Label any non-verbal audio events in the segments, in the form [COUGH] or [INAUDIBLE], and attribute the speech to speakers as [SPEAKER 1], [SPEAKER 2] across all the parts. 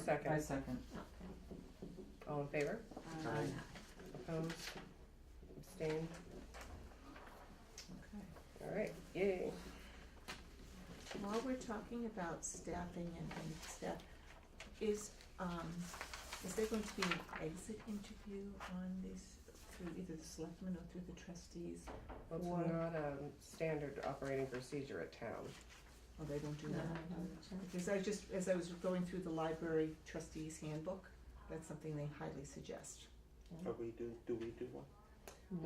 [SPEAKER 1] second?
[SPEAKER 2] second.
[SPEAKER 3] Okay.
[SPEAKER 1] All in favor?
[SPEAKER 2] Aye.
[SPEAKER 1] Opposed? Abstained?
[SPEAKER 2] Okay.
[SPEAKER 1] All right, yay.
[SPEAKER 3] While we're talking about staffing and, and staff, is, um, is there going to be an exit interview on this through either the selectmen or through the trustees?
[SPEAKER 1] Well, it's
[SPEAKER 3] Or-
[SPEAKER 1] not a um, standard operating procedure at town.
[SPEAKER 3] Or Oh, they don't do that? Because I just, as I was going through the library trustees handbook, that's something they highly suggest.
[SPEAKER 4] Are we do, do we do one?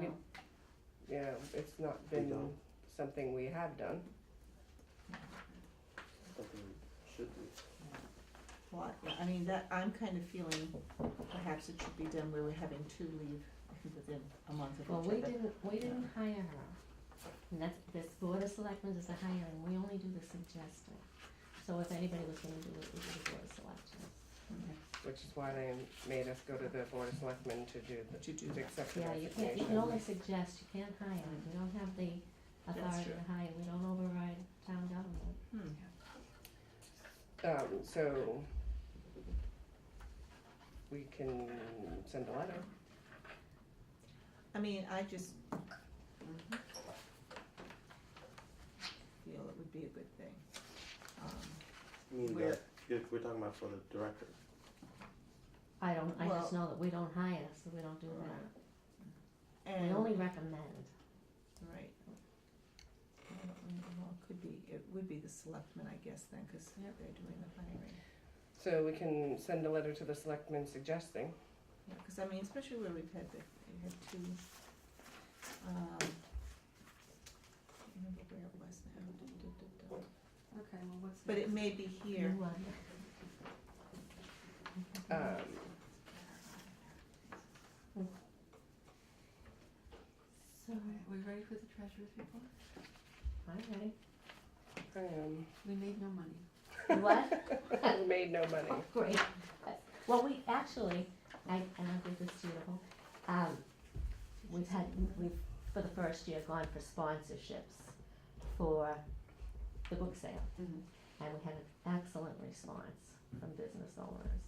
[SPEAKER 1] We- Yeah, it's not
[SPEAKER 4] We
[SPEAKER 1] been
[SPEAKER 4] don't.
[SPEAKER 1] something we have done.
[SPEAKER 4] Something should we?
[SPEAKER 3] Well, I- I mean, that, I'm kind of feeling perhaps it should be done where we're having two leave [LAUGHS] within a month of each
[SPEAKER 2] Well,
[SPEAKER 3] other.
[SPEAKER 2] we didn't, we didn't hire her. And that's, this board of selectmen is a hiring, we only do the suggesting. So if anybody was gonna do it, it was the board of selectmen.
[SPEAKER 1] Which is why they made us go to the Board of Selectmen to do, the-
[SPEAKER 3] To do
[SPEAKER 1] to
[SPEAKER 3] that.
[SPEAKER 1] accept the
[SPEAKER 2] Yeah, you can't, you can
[SPEAKER 1] resignation.
[SPEAKER 2] only suggest, you can't hire, you don't have the authority to hire, we don't override town government.
[SPEAKER 3] Hmm.
[SPEAKER 1] Um, so we can send a letter.
[SPEAKER 3] I mean, I just feel it would be a good thing. Um,
[SPEAKER 4] I mean,
[SPEAKER 3] We're-
[SPEAKER 4] that, if we're talking about for the director,
[SPEAKER 2] I don't, I just
[SPEAKER 3] Well-
[SPEAKER 2] know that we don't hire, so we don't do that, we
[SPEAKER 3] And,
[SPEAKER 2] only recommend.
[SPEAKER 3] right. Well, it could be, it would be the selectmen, I guess, then, because they're
[SPEAKER 2] Yep.
[SPEAKER 3] doing the hiring.
[SPEAKER 1] So we can send a letter to the selectmen suggesting.
[SPEAKER 3] Yeah, because I mean, especially where we've had the, we had two, um, I can't remember where it was now. Okay, well, what's? But it may be here.
[SPEAKER 5] Mm-hmm.
[SPEAKER 2] You, uh, Mm-hmm.
[SPEAKER 1] Um,
[SPEAKER 2] So,
[SPEAKER 6] We ready for the treasurer's report?
[SPEAKER 2] all
[SPEAKER 1] [LAUGHS]
[SPEAKER 2] right,
[SPEAKER 3] [LAUGHS]
[SPEAKER 1] um,
[SPEAKER 6] We made no money.
[SPEAKER 2] what?
[SPEAKER 1] we made no money.
[SPEAKER 2] Great. Well, we actually, I, and I think this is beautiful, um, we've had, we've, for the first year, gone for sponsorships for the book sale.
[SPEAKER 6] Mhm.
[SPEAKER 2] And we had an excellent response from business owners.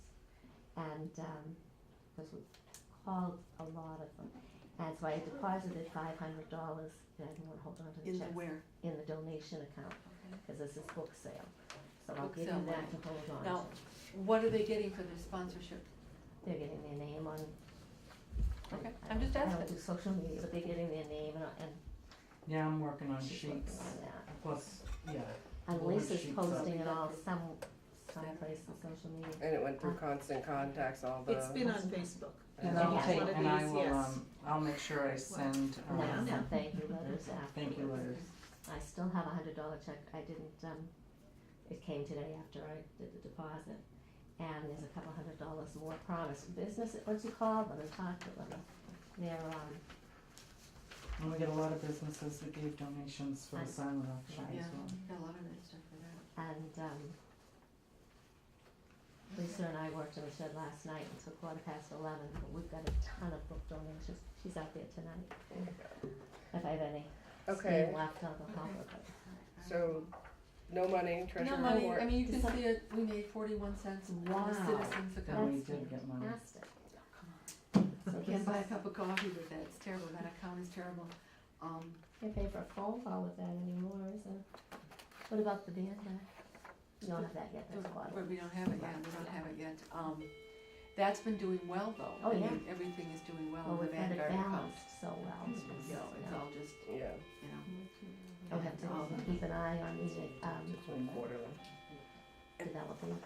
[SPEAKER 2] And, um, because we called a lot of them. And so I deposited five hundred dollars, and I didn't wanna hold on to the
[SPEAKER 6] In the
[SPEAKER 2] checks,
[SPEAKER 6] where?
[SPEAKER 2] in the donation account, cause this is book sale. So I'll
[SPEAKER 6] Book
[SPEAKER 2] give you
[SPEAKER 6] sale
[SPEAKER 2] that
[SPEAKER 6] money.
[SPEAKER 2] to hold on to.
[SPEAKER 6] Now, What are they getting for their sponsorship?
[SPEAKER 2] they're getting their name on.
[SPEAKER 6] Okay,
[SPEAKER 2] I
[SPEAKER 6] I'm
[SPEAKER 2] don't-
[SPEAKER 6] just
[SPEAKER 2] I don't
[SPEAKER 6] asking.
[SPEAKER 2] do social media, but they're getting their name and, and
[SPEAKER 5] Yeah, I'm working on
[SPEAKER 2] she's working
[SPEAKER 5] sheets,
[SPEAKER 2] on that.
[SPEAKER 5] plus, yeah,
[SPEAKER 2] And
[SPEAKER 5] Well,
[SPEAKER 2] Lisa's
[SPEAKER 5] she's
[SPEAKER 2] posting it
[SPEAKER 6] up.
[SPEAKER 2] all some,
[SPEAKER 6] Saturday,
[SPEAKER 2] someplace on
[SPEAKER 6] okay.
[SPEAKER 2] social media.
[SPEAKER 1] And it went through constant contacts, all the.
[SPEAKER 3] It's been on Facebook.
[SPEAKER 5] and
[SPEAKER 2] Yeah.
[SPEAKER 5] I'll
[SPEAKER 2] Yeah.
[SPEAKER 5] take,
[SPEAKER 3] One of
[SPEAKER 5] and I
[SPEAKER 3] these,
[SPEAKER 5] will,
[SPEAKER 3] yes.
[SPEAKER 5] um, I'll make sure I send,
[SPEAKER 2] And
[SPEAKER 3] Yeah.
[SPEAKER 2] then
[SPEAKER 5] um,
[SPEAKER 2] some thank you letters afterwards.
[SPEAKER 5] [LAUGHS] thank you letters.
[SPEAKER 2] I still have a hundred dollar check, I didn't, um, it came today after I did the deposit. And there's a couple hundred dollars more promised, business, once you call them and talk to them, they're, um,
[SPEAKER 5] And we get a lot of businesses that gave donations for the
[SPEAKER 2] And-
[SPEAKER 5] silent auction
[SPEAKER 6] Yeah,
[SPEAKER 5] as well.
[SPEAKER 6] got a lot of that stuff for that.
[SPEAKER 2] And um, Lisa and I worked in the shed last night until quarter past eleven, but we've got a ton of book donations. She's out there tonight, if I have any.
[SPEAKER 1] Okay.
[SPEAKER 2] Staying left on the helper, but
[SPEAKER 1] So, no money, treasure
[SPEAKER 6] No money,
[SPEAKER 1] report.
[SPEAKER 6] I mean, you can
[SPEAKER 2] Is that-
[SPEAKER 6] see it, we made forty-one cents in
[SPEAKER 2] Wow.
[SPEAKER 6] the citizens
[SPEAKER 5] Then
[SPEAKER 6] account.
[SPEAKER 5] we
[SPEAKER 2] that's
[SPEAKER 5] did get money.
[SPEAKER 2] fantastic.
[SPEAKER 6] You can't buy a cup of coffee with that, it's terrible, that account is terrible. Um,
[SPEAKER 2] Can't pay for a phone call with that anymore, is it? What about the band? uh, You don't have that yet, that's
[SPEAKER 6] don't-
[SPEAKER 2] why.
[SPEAKER 6] but we don't have it yet, we don't have it yet. Um, that's been doing well though.
[SPEAKER 2] Oh,
[SPEAKER 6] I
[SPEAKER 2] yeah.
[SPEAKER 6] mean, Everything is doing well
[SPEAKER 2] Well,
[SPEAKER 6] in
[SPEAKER 2] we've
[SPEAKER 6] the
[SPEAKER 2] had it
[SPEAKER 6] Vanguard account.
[SPEAKER 2] balanced so well. it's-
[SPEAKER 6] You know, it's
[SPEAKER 2] yeah.
[SPEAKER 6] all just,
[SPEAKER 1] Yeah,
[SPEAKER 6] you know,
[SPEAKER 2] We'll have
[SPEAKER 6] all
[SPEAKER 2] to
[SPEAKER 6] the-
[SPEAKER 2] keep an eye on these, um,
[SPEAKER 1] just one quarterly.
[SPEAKER 2] developing,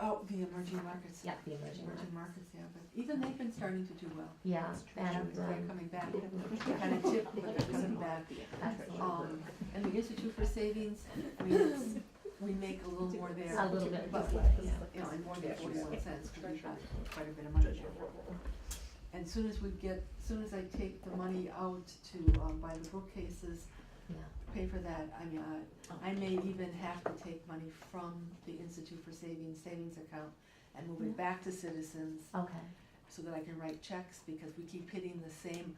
[SPEAKER 6] oh, the emerging markets.
[SPEAKER 2] yeah, the emerging market.
[SPEAKER 6] Emerging markets, yeah, but even they've been starting to do well.
[SPEAKER 2] Yeah,
[SPEAKER 6] It's true,
[SPEAKER 2] and,
[SPEAKER 6] They're
[SPEAKER 2] um,
[SPEAKER 6] coming back, kind of tip, but they're coming back.
[SPEAKER 2] Excellent.
[SPEAKER 6] Um, and the Institute for Savings, I mean, it's, we make a little more there.
[SPEAKER 2] A little bit,
[SPEAKER 6] But,
[SPEAKER 2] just like, yeah.
[SPEAKER 6] you know, and more than
[SPEAKER 1] Yeah.
[SPEAKER 6] forty-one cents, we got quite a bit of money there. And soon as we get, soon as I take the money out to, um, buy the bookcases,
[SPEAKER 2] Yeah.
[SPEAKER 6] pay for that, I mean, I, I may even have to take money from the Institute for Savings, savings account and move it back to Citizens
[SPEAKER 2] Okay,
[SPEAKER 6] so that I can write checks because we keep hitting the same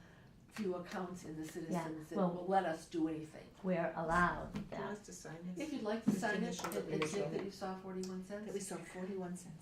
[SPEAKER 6] few accounts in the
[SPEAKER 2] Yeah,
[SPEAKER 6] citizens that
[SPEAKER 2] well-
[SPEAKER 6] will let us do anything.
[SPEAKER 2] we're allowed
[SPEAKER 3] Do you want
[SPEAKER 2] that.
[SPEAKER 3] us to sign his?
[SPEAKER 6] If you'd like to
[SPEAKER 3] Just
[SPEAKER 6] sign it,
[SPEAKER 3] initial that
[SPEAKER 6] it-
[SPEAKER 3] we
[SPEAKER 6] it's
[SPEAKER 3] initial.
[SPEAKER 6] it that you saw forty-one cents.
[SPEAKER 3] saw forty-one cents.